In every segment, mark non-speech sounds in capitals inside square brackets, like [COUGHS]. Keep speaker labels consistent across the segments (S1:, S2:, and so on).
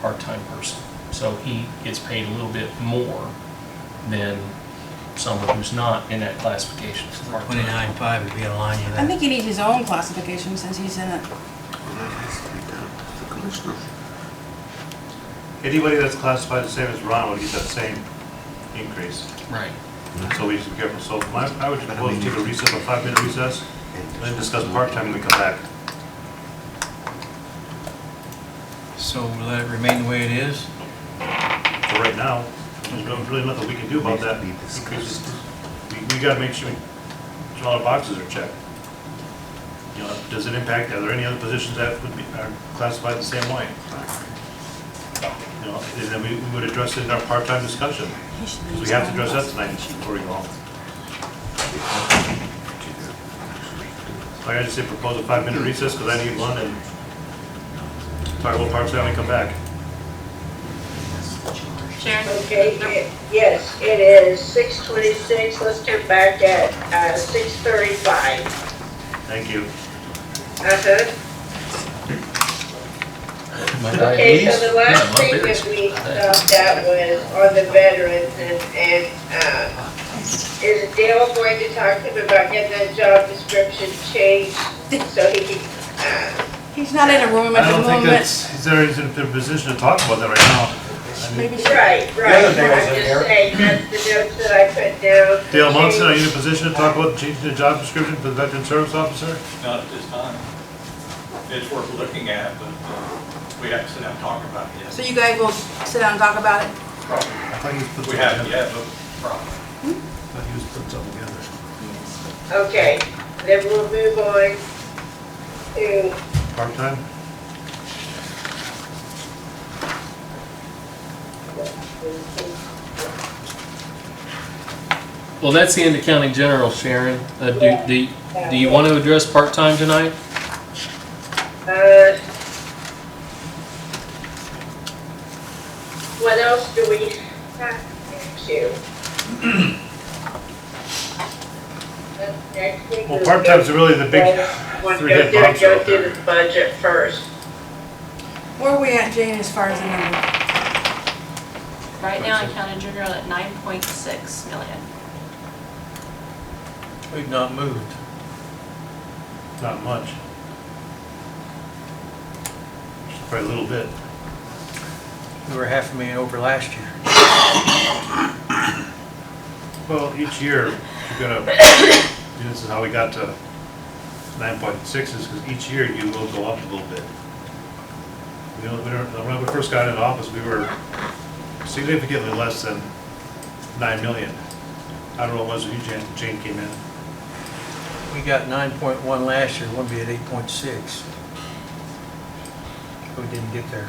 S1: part-time person. So he gets paid a little bit more than someone who's not in that classification for part-time.
S2: Twenty-nine five would be in line with
S3: I
S2: that.
S3: think he needs his own classification since he's in it.
S4: That has to be done to the commissioner.
S5: Anybody that's classified the same as Ron will get that same increase.
S1: Right.
S5: So we should be careful. So my- I would propose take a recess, a five-minute recess, and then discuss part-time and then come back.
S2: So we'll let it remain the way it is?
S5: For right now, there's no- really nothing we can do about that. Because We, we gotta make sure we- all the boxes are checked. You know, does it impact, are there any other positions that would be, are classified the same way? You know, and then we, we would address it in our part-time discussion,
S3: He should
S5: because
S3: use
S5: we have to
S3: his
S5: address
S3: own
S5: that tonight before we go home. So I gotta say propose a five-minute recess, because I need one, and talk about part-time and come back.
S6: Sharon,
S7: Okay, it- yes, it is six twenty-six, let's turn back at, uh, six thirty-five.
S5: Thank you.
S7: Uh-huh.
S1: My
S7: Okay, so
S1: diabetes?
S7: the last
S1: Yeah, my
S7: thing
S1: beers.
S7: that we uh, looked at was on the veterans and, and, uh, is Dale going to talk to him about getting that job description changed so he can, uh,
S3: class. He's not in a room at
S5: I
S3: the
S5: don't think
S3: moment.
S5: that's, he's already in a position to talk about that right now. I mean,
S3: Maybe she-
S7: right, right,
S4: other
S7: I'm
S4: thing was in
S7: just
S4: there-
S7: saying, that's the notes that I put down.
S5: Dale Munson, are you in
S7: Change-
S5: a position to talk about changing the job description for the veteran service officer?
S8: Not at this time. It's worth looking at, but uh, we have to sit down and talk about it.
S3: So
S8: yes.
S3: you guys will sit down and talk about it?
S5: I thought he was put
S8: We
S5: something
S8: haven't
S5: together.
S8: yet, but probably.
S5: I thought he was put something together.
S7: Okay, then we'll move on to
S5: Part-time?
S1: Well, that's the end of county general, Sharon. Uh, do, do, do you want to address part-time tonight?
S7: Uh, What else do we have to? Next week
S5: Well,
S7: is-
S5: part-time's really the big
S7: Wanna go
S5: three-head
S7: through-
S5: monster
S7: Go
S5: out
S7: through
S5: there.
S7: the budget first.
S3: Where are we at, Jane, as far as the number?
S6: right now in County General at nine point six million.
S2: We've not moved.
S5: Not much. Just Probably a little bit.
S2: We were half a million over last year.
S5: Well, each year, you're gonna, [COUGHS] this is how we got to nine point six is because each year you will go up a little bit. You know, we don't- when we first got into office, we were significantly less than nine million. I don't know what it was when you, Jan- Jane came in.
S2: We got nine point one last year, we'll be at eight point six. We didn't get there.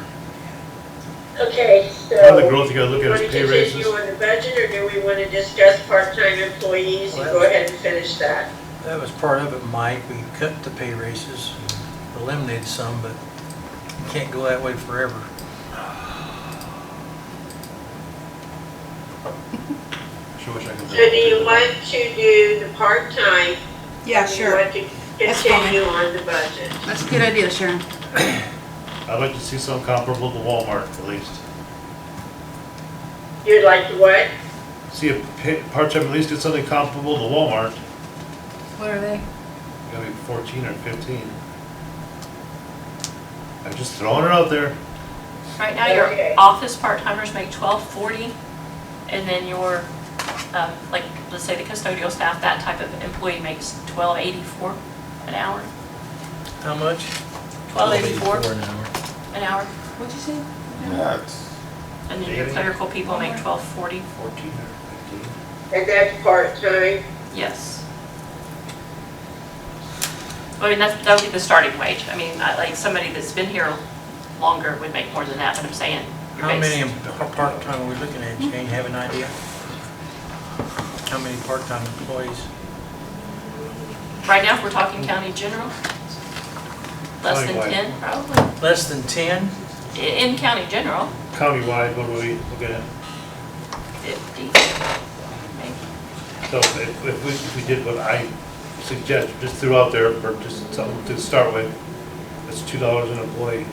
S7: Okay, so.
S5: Part of the growth you gotta look at
S7: wanna
S5: is pay
S7: continue
S5: raises.
S7: on the budget, or do we want to discuss part-time employees? You go ahead and finish that.
S2: That was part of it, Mike, we cut the pay raises, eliminated some, but you can't go that way forever.
S5: Sure wish I could-
S7: So do you want to do the part-time?
S3: Yeah,
S7: or do you
S3: sure.
S7: want to
S3: That's fine.
S7: continue on the budget?
S3: That's a good idea, Sharon.
S5: I'd like to see some comparable to Walmart at least.
S7: You'd like to what?
S5: See if pay- part-time at least get something comparable to Walmart,
S3: What are they?
S5: gonna be fourteen or fifteen. I'm just throwing it out there.
S6: Right now, your
S7: Okay.
S6: office part-timers make twelve forty, and then your, um, like, let's say the custodial staff, that type of employee makes twelve eighty-four an hour,
S2: How much?
S6: twelve eighty-four
S1: an hour.
S6: an hour.
S3: What'd you say?
S4: Yeah, it's-
S6: And then your
S5: Daily?
S6: clerical people make twelve forty,
S5: Fourteen or fifteen?
S7: And that's part-time?
S6: yes. I mean, that's, that'll be the starting wage. I mean, I- like, somebody that's been here longer would make more than that, but I'm saying. your
S2: How
S6: base-
S2: many em- part-time are we looking at, Jane, have an idea? How many part-time employees?
S6: Right now, if we're talking county general, less than
S5: County-wide.
S6: ten, probably,
S2: Less than ten?
S6: I- in county general.
S5: Countywide, what do we look at?
S6: 50, maybe.
S5: So if, if we, if we did what I suggest, just threw out there, or just something to start with, it's two dollars an employee.